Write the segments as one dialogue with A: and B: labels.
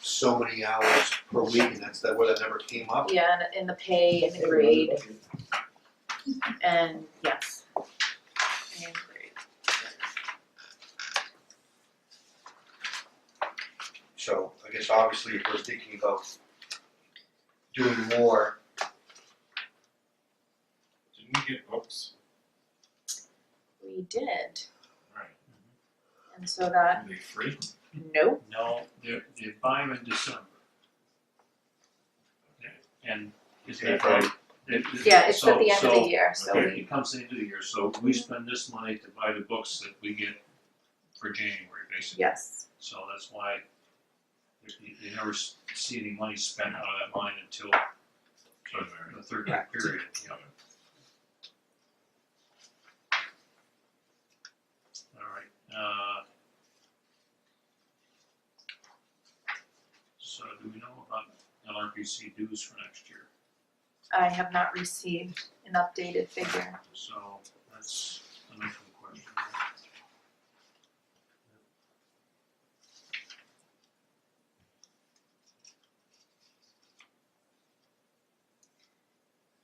A: so many hours per week, and that's that where that number came up.
B: Yeah, and in the pay and the grade and yes. And grade.
A: So I guess obviously if we're thinking about doing more,
C: Didn't we get books?
B: We did,
C: Right.
B: and so that,
C: Are they free?
B: nope,
D: No, they're, they buy them in December. And is that
C: April.
D: right? It- it-
B: yeah, it's at
D: so-
B: the end of
D: so-
B: the year, so
D: Okay,
B: we,
D: it comes into the year, so we spend this money to buy the books that we get for January, basically.
B: yes,
D: So that's why you, you never s- see any money spent out of that line until the- the third
B: Correct.
D: period, you know. All right, uh. So do we know about LRPC dues for next year?
B: I have not received an updated figure.
D: So that's an open question. right?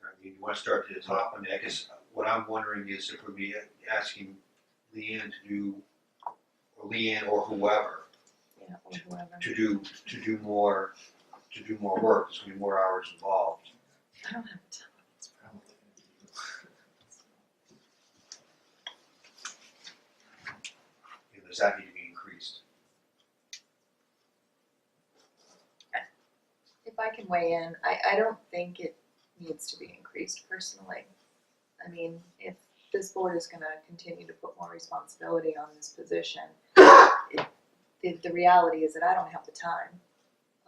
A: I mean, you wanna start to the top, I mean, I guess what I'm wondering is if we'd be asking Leanne to do, or Leanne or whoever,
B: Yeah, or whoever.
A: to do, to do more, to do more work, there's gonna be more hours involved.
B: I don't have a ton.
A: You know, Does that need to be increased?
B: If I can weigh in, I, I don't think it needs to be increased personally. I mean, if this board is gonna continue to put more responsibility on this position, it, the, the reality is that I don't have the time,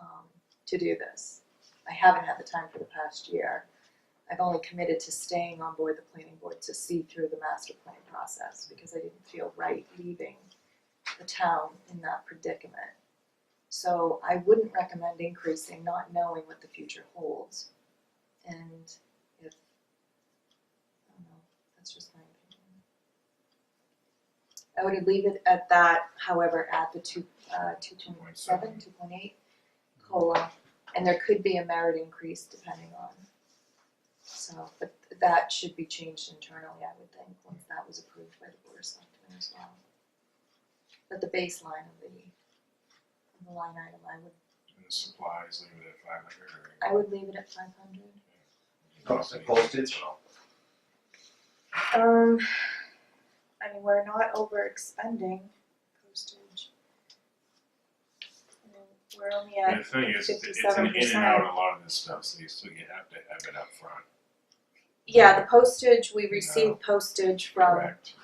B: um, to do this. I haven't had the time for the past year. I've only committed to staying on board the planning board to see through the master plan process because I didn't feel right leaving the town in that predicament. So I wouldn't recommend increasing, not knowing what the future holds. And if, I don't know, that's just my opinion. I would leave it at that, however, at the two, uh, two point seven, two point eight COLA. And there could be a merit increase depending on. So, but that should be changed internally, I would think, once that was approved by the board of selectmen as well. But the baseline of the the line item, I would,
C: And the supplies, leave it at five hundred or?
B: I would leave it at five hundred.
A: Cost of postage?
B: Um, I mean, we're not over expending postage. I mean, We're only
C: And
B: at,
C: the thing is, it's it's an in and
B: 57%.
C: out a lot of this stuff, so you still, you have to have it up front.
B: yeah, the postage, we
C: No.
B: receive postage from,
C: correct?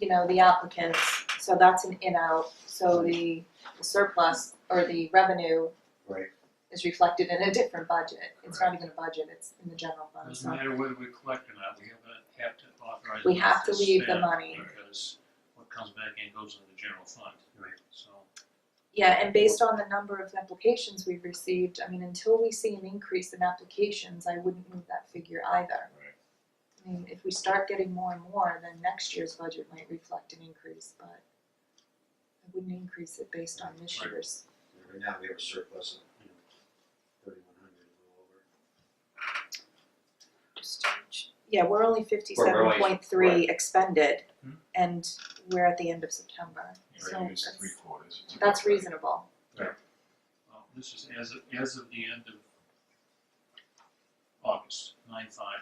B: you know, the applicants, so that's an in-out, so the the surplus or the revenue
A: Right.
B: is reflected in a different budget, it's not even a budget, it's in the general fund,
D: Doesn't
B: so
D: matter whether we collect or not, we have to, have to authorize.
B: we
D: it
B: have to leave the
D: spend
B: money.
D: Because what comes back in goes into the general fund. Right. So.
B: Yeah, and based on the number of applications we've received, I mean, until we see an increase in applications, I wouldn't move that figure either.
C: Right.
B: I mean, if we start getting more and more, then next year's budget might reflect an increase, but I wouldn't increase it based on this
D: Right.
B: year's.
A: Right now, we have a surplus of, you know, thirty-one hundred, a little over.
B: postage. Yeah, we're only fifty-seven
A: only-
B: point three
A: right.
B: expended,
D: Hmm.
B: and we're at the end of September,
C: You
B: so
C: already used
B: that's,
C: three quarters. it's
B: that's
C: about right.
B: reasonable.
D: Well, this is as of, as of the end of August, nine five,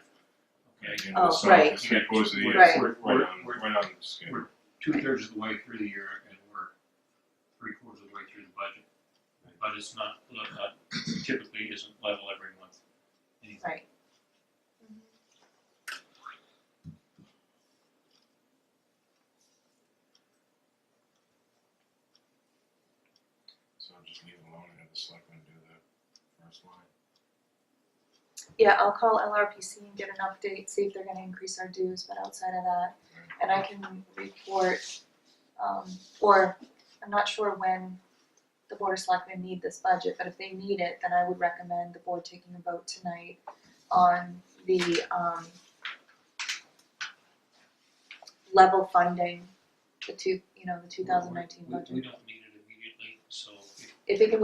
C: Yeah,
D: okay?
C: you know,
B: Oh,
C: so
B: right.
C: it's Three quarters of the year,
B: Right.
C: right on,
D: We're-
C: right on the schedule.
D: We're two thirds of the way through the year and we're three quarters of the way through the budget. But it's not, uh, not typically isn't level every month. Anything.
B: Right.
C: So just leave it alone and have the selectmen do the first line.
B: Yeah, I'll call LRPC and get an update, see if they're gonna increase our dues, but outside of that, and I can report, um, or I'm not sure when the board of selectmen need this budget, but if they need it, then I would recommend the board taking a vote tonight on the, um, level funding, the two, you know, the two thousand nineteen
D: We, we
B: budget.
D: don't need it immediately, so if
B: If it can